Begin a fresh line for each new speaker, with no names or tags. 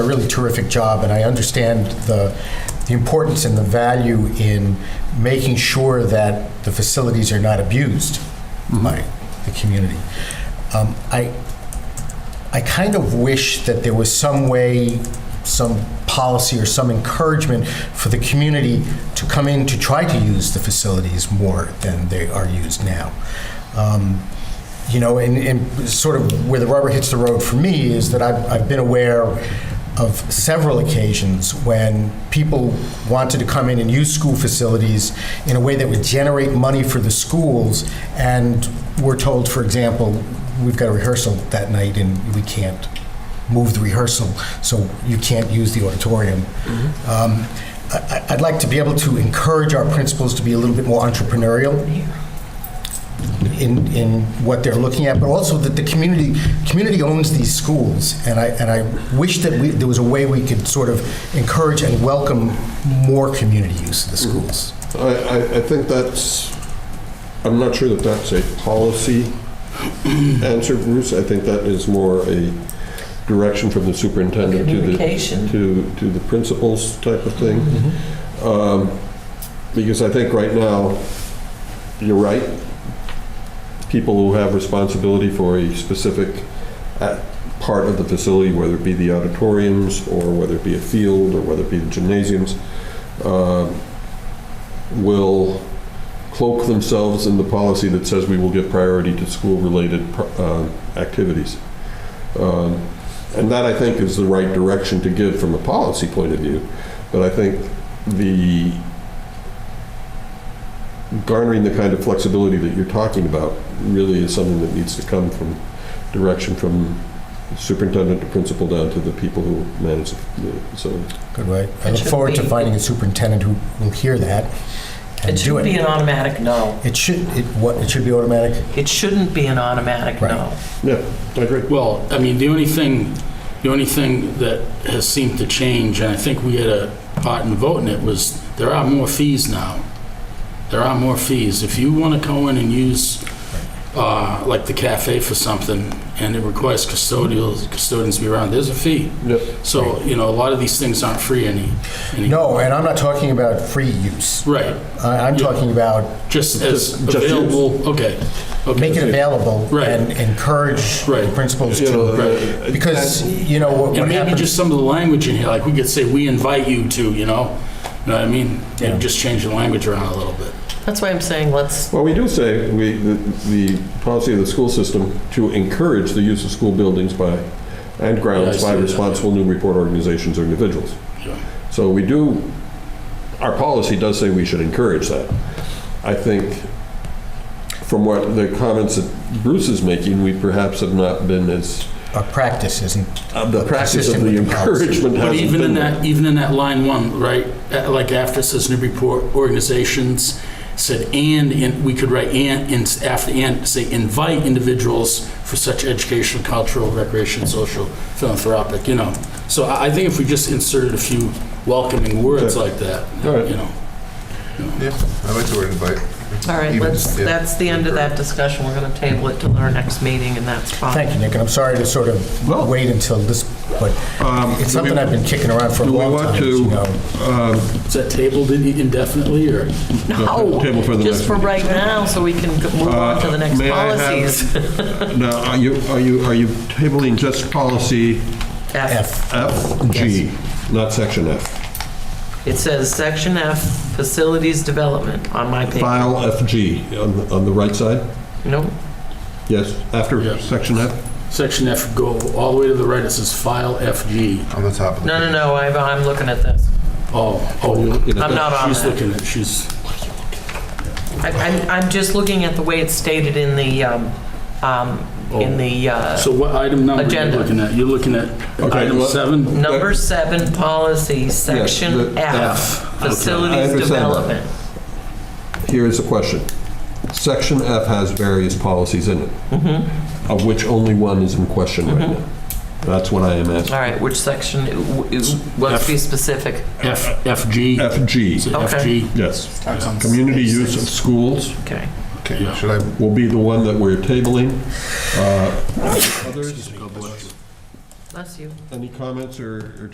a really terrific job, and I understand the, the importance and the value in making sure that the facilities are not abused by the community. Um, I, I kind of wish that there was some way, some policy or some encouragement for the community to come in to try to use the facilities more than they are used now. Um, you know, and, and sort of where the rubber hits the road for me is that I've, I've been aware of several occasions when people wanted to come in and use school facilities in a way that would generate money for the schools, and we're told, for example, we've got a rehearsal that night and we can't move the rehearsal, so you can't use the auditorium.
Mm-hmm.
Um, I, I- I'd like to be able to encourage our principals to be a little bit more entrepreneurial in, in what they're looking at, but also that the community, community owns these schools, and I, and I wish that we, there was a way we could sort of encourage and welcome more community use of the
Mm-hmm.
schools.
I, I, I think that's, I'm not sure that that's a policy answer, Bruce. I think that is more a direction from the superintendent to the,
Communication.
to, to the principals type of thing. Um, Because I think right now, you're right, people who have responsibility for a specific uh, part of the facility, whether it be the auditoriums, or whether it be a field, or whether it be the gymnasiums, um, will cloak themselves in the policy that says we will give priority to school-related pr- uh, activities. Um, And that, I think, is the right direction to give from a policy point of view. But I think the garnering the kind of flexibility that you're talking about really is something that needs to come from direction from superintendent to principal down to the people who manage the facility.
Good way. I
It
look
should
forward to
be-
finding a superintendent who will hear that and do
It shouldn't be
it.
an automatic no.
It should, it, what, it should be automatic?
It shouldn't be an automatic
Right.
no.
Yeah, I agree.
Well, I mean, the only thing, the only thing that has seemed to change, and I think we had a part in voting it, was there are more fees now. There are more fees. If you want to go in and use, uh, like the cafe for something, and it requires custodials, custodians to be around, there's a fee.
Yep.
So, you know, a lot of these things aren't free any. any-
No, and I'm not talking about free use.
Right,
I, I'm talking about
just as
Just- just use.
available, okay. okay.
make it available
Right.
and encourage the
Right.
principals
You know,
to,
uh,
because, you know, what
And
what
maybe
happens.
just some of the language in here, like we could say, we invite you to, you know? You know what I mean?
Yeah.
And just change the language around a little bit.
That's why I'm saying let's,
Well, we do say, we, the, the policy of the school system to encourage the use of school buildings by, and
Yeah, I
grounds
see
by
that.
responsible new report organizations or individuals.
Yeah.
So we do, our policy does say we should encourage that. I think from what the comments that Bruce is making, we perhaps have not been as,
Our practice isn't,
the practice
Consistent
of
with
the
the policy.
encouragement
But
hasn't
even in
been there.
that, even in that line one, right, uh, like after it says Newburyport organizations, said and, and we could write and, and after and, say invite individuals for such educational, cultural, recreation, social, philanthropic, you know? So I, I think if we just inserted a few welcoming words
Okay.
like that,
All right.
you know?
Yeah, I like the word invite.
all right,
Even-
let's,
yeah.
that's the end of that discussion. We're going to table it till our next meeting and that's fine.
thank you, Nick, and I'm sorry to sort of
Well-
wait until this, but
Um,
it's
do we-
something I've been kicking around for a
do we
long
want
time, as
to-
you know.
Is that tabled indefinitely or?
No,
Table for the next
just for
meeting. Uh,
right now, so we can go- move on to the next
May I have-
policies.
Now, are you, are you, are you tabling just policy
F,
F.
F, G, not section F.
It says Section F, Facilities Development on my page.
File FG on the, on the right side?
Nope,
Yes, after
Yeah.
section F?
Section F, go all the way to the right, it says file FG.
On the top of the.
no, no,
page.
no, I'm, I'm looking at this.
Oh, oh, you-
You know,
I'm not on
she's
that.
looking at, she's,
I- I'm, I'm just looking at the way it's stated in the, um, um,
Oh.
in the, uh,
so what item number are you
Agenda.
looking at? You're looking at
Okay,
item
well-
seven?
number seven policy,
the uh,
section F,
F. Okay.
I
facilities
understand that.
development.
Here is a question. Section F has various policies in it,
Mm-hmm.
of which only one is in question right now. That's what I am asking.
All right, which section, let's be specific.
F, FG? Is
FG,
it
Okay.
FG?
yes. Community use of schools
Okay.
Yeah.
Okay, should I,
will be the one that we're tabling. Uh,
God bless.
Bless you.
Any comments or or